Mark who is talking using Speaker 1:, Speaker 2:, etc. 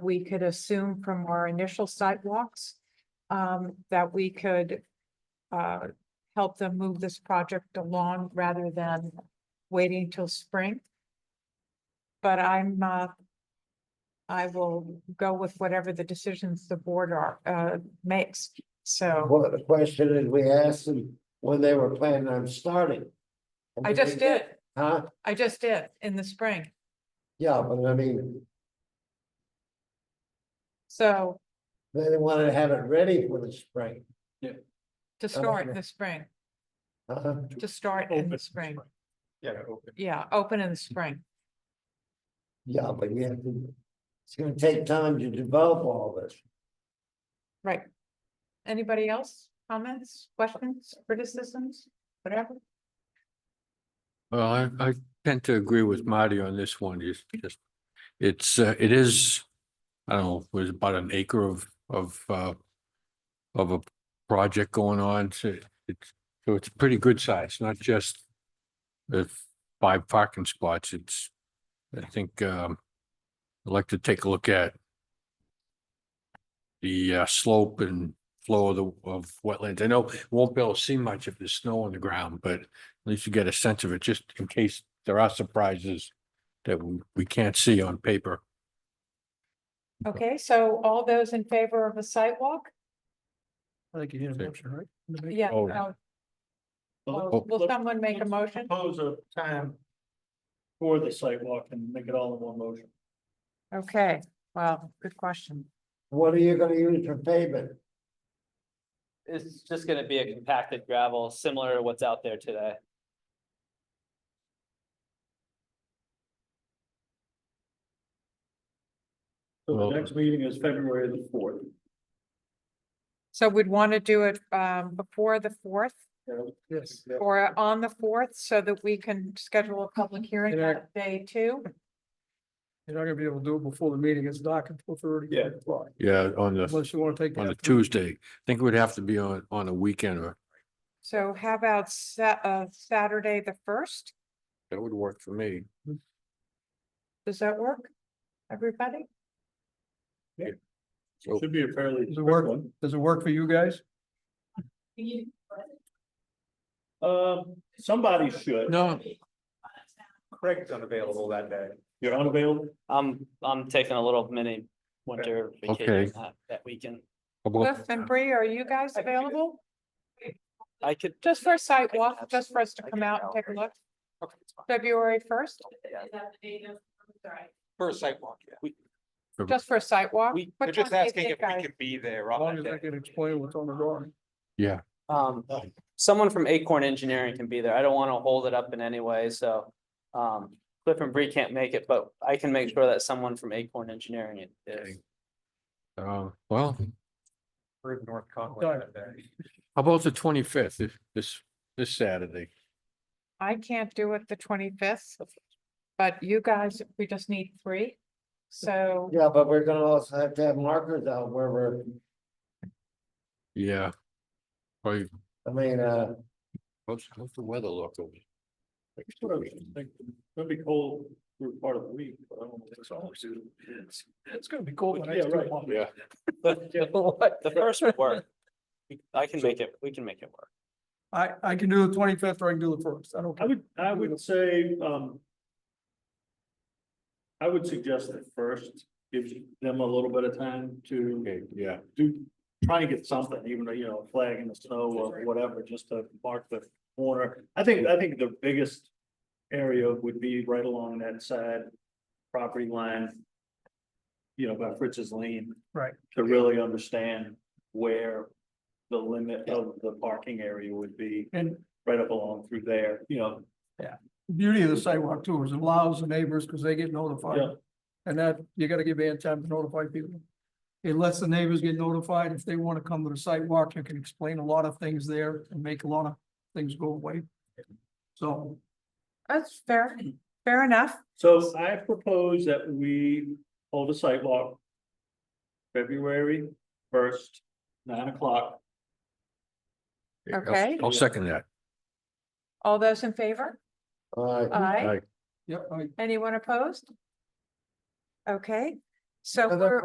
Speaker 1: we could assume from our initial sidewalks um, that we could uh, help them move this project along rather than waiting till spring. But I'm, uh, I will go with whatever the decisions the board are, uh, makes, so
Speaker 2: Well, the question is, we asked them when they were planning on starting.
Speaker 1: I just did,
Speaker 2: Huh?
Speaker 1: I just did in the spring,
Speaker 2: Yeah, but I mean,
Speaker 1: so
Speaker 2: they wanted to have it ready for the spring.
Speaker 1: to start in the spring,
Speaker 2: huh?
Speaker 1: to start in the spring,
Speaker 3: Yeah, open.
Speaker 1: yeah, open in the spring.
Speaker 2: Yeah, but you have to, it's gonna take time to develop all this.
Speaker 1: Anybody else? Comments, questions, criticisms, whatever?
Speaker 4: Well, I, I tend to agree with Marty on this one. It's just, it's, uh, it is, I don't know, was about an acre of, of, uh, of a project going on. So it's, so it's pretty good size, not just the five parking spots. It's, I think, um, I'd like to take a look at the uh, slope and flow of the, of wetlands. I know we won't be able to see much if there's snow on the ground, but at least you get a sense of it, just in case there are surprises that we, we can't see on paper.
Speaker 1: Okay, so all those in favor of a sidewalk?
Speaker 3: I think you need a
Speaker 4: Sure.
Speaker 3: motion, right?
Speaker 1: Yeah.
Speaker 4: Oh.
Speaker 1: no.
Speaker 5: Well,
Speaker 6: Oh.
Speaker 1: Will will
Speaker 5: let's-
Speaker 1: someone make a
Speaker 5: let's
Speaker 1: motion?
Speaker 5: Propose a time for the sidewalk and make it all in one motion.
Speaker 1: Okay, well, good question.
Speaker 2: What are you gonna use for pavement?
Speaker 7: It's just gonna be a compacted gravel, similar to what's out there today.
Speaker 5: So
Speaker 4: Well-
Speaker 5: the
Speaker 3: uh,
Speaker 5: next meeting is February the fourth.
Speaker 1: So we'd want to do it um before the fourth
Speaker 3: Yes.
Speaker 1: or on the fourth so that we can schedule a public hearing
Speaker 3: Can I-
Speaker 1: that day too.
Speaker 3: You're not gonna be able to do it before the meeting. It's dark until thirty.
Speaker 5: Yeah.
Speaker 4: Yeah, on the,
Speaker 3: Unless you wanna take.
Speaker 4: on the
Speaker 3: that-
Speaker 4: Tuesday. I think it would have to be on, on a weekend or
Speaker 1: So how about Sa- uh Saturday, the first?
Speaker 4: that would work for me.
Speaker 1: Does that work? Everybody?
Speaker 4: So-
Speaker 5: Should be a fairly.
Speaker 3: Does it work?
Speaker 5: quick one.
Speaker 3: Does it work for you guys?
Speaker 5: Um, somebody should.
Speaker 4: No,
Speaker 3: Craig's unavailable that day.
Speaker 5: You're unavailable?
Speaker 7: I'm, I'm taking a little mini winter
Speaker 4: Okay.
Speaker 7: vacation that, that weekend.
Speaker 4: how
Speaker 1: Cliff
Speaker 4: about-
Speaker 1: and Bree, are you guys available?
Speaker 7: I could.
Speaker 1: Just for a site
Speaker 7: I
Speaker 1: walk,
Speaker 7: have-
Speaker 1: just for us to
Speaker 7: I
Speaker 1: come
Speaker 7: can
Speaker 1: out and take a
Speaker 7: help.
Speaker 1: look,
Speaker 7: Okay, it's fine.
Speaker 1: February first,
Speaker 7: Yeah,
Speaker 6: For a sidewalk, yeah.
Speaker 1: just for a site walk?
Speaker 7: We-
Speaker 1: What
Speaker 6: They're just
Speaker 1: time do you
Speaker 6: asking if
Speaker 1: think,
Speaker 6: Um, we
Speaker 1: guys?
Speaker 6: can be there
Speaker 3: As long
Speaker 6: on
Speaker 3: as I
Speaker 6: that day.
Speaker 3: can explain what's on the drawing.
Speaker 4: Yeah,
Speaker 7: Um, someone from Acorn Engineering can be there. I don't wanna hold it up in any way, so. Um, Cliff and Bree can't make it, but I can make sure that someone from Acorn Engineering is.
Speaker 4: Okay. um, well, how
Speaker 6: We're in North Conway
Speaker 3: Sorry.
Speaker 6: that day.
Speaker 4: about the twenty-fifth, this, this, this Saturday?
Speaker 1: I can't do it the twenty-fifth, but you guys, we just need three. So,
Speaker 2: Yeah, but we're gonna also have to have markers out where we're,
Speaker 4: Yeah. Probably,
Speaker 2: I mean, uh,
Speaker 4: how's, how's the weather look over?
Speaker 5: That's what I was just thinking. It'll be cold through part of the week, but I don't know. if it's all soon.
Speaker 3: It's gonna be cold.
Speaker 5: Yeah, right.
Speaker 4: Yeah.
Speaker 7: The the first would work. We- I can make it, we can make it work.
Speaker 3: I, I can do the twenty-fifth or I can do the first. I don't
Speaker 5: I
Speaker 3: care.
Speaker 5: would, I would say, um. I would suggest that first gives them a little bit of time to
Speaker 4: Okay, yeah,
Speaker 5: do, try to get something, even though, you know, a flag in the snow or whatever, just to mark the corner. I think, I think the biggest area would be right along that side property line. You know, by Fritz's Lane.
Speaker 3: Right.
Speaker 5: To really understand where the limit of the parking area would be,
Speaker 3: And
Speaker 5: right up along through there, you know,
Speaker 3: the beauty of the sidewalk too is it allows the neighbors, because they get
Speaker 5: Yeah.
Speaker 3: notified. And that, you gotta give Ann time to notify people. It lets the neighbors get notified. If they wanna come to the sidewalk, you can explain a lot of things there and make a lot of things go away. So,
Speaker 1: that's fair, fair enough.
Speaker 5: So I propose that we hold a sidewalk. February first, nine o'clock.
Speaker 4: I'll-
Speaker 1: Okay.
Speaker 4: I'll second that.
Speaker 1: All those in favor?
Speaker 2: uh,
Speaker 1: Aye.
Speaker 4: Aye.
Speaker 3: yep, I,
Speaker 1: Anyone opposed? Okay, so
Speaker 2: Another
Speaker 1: we're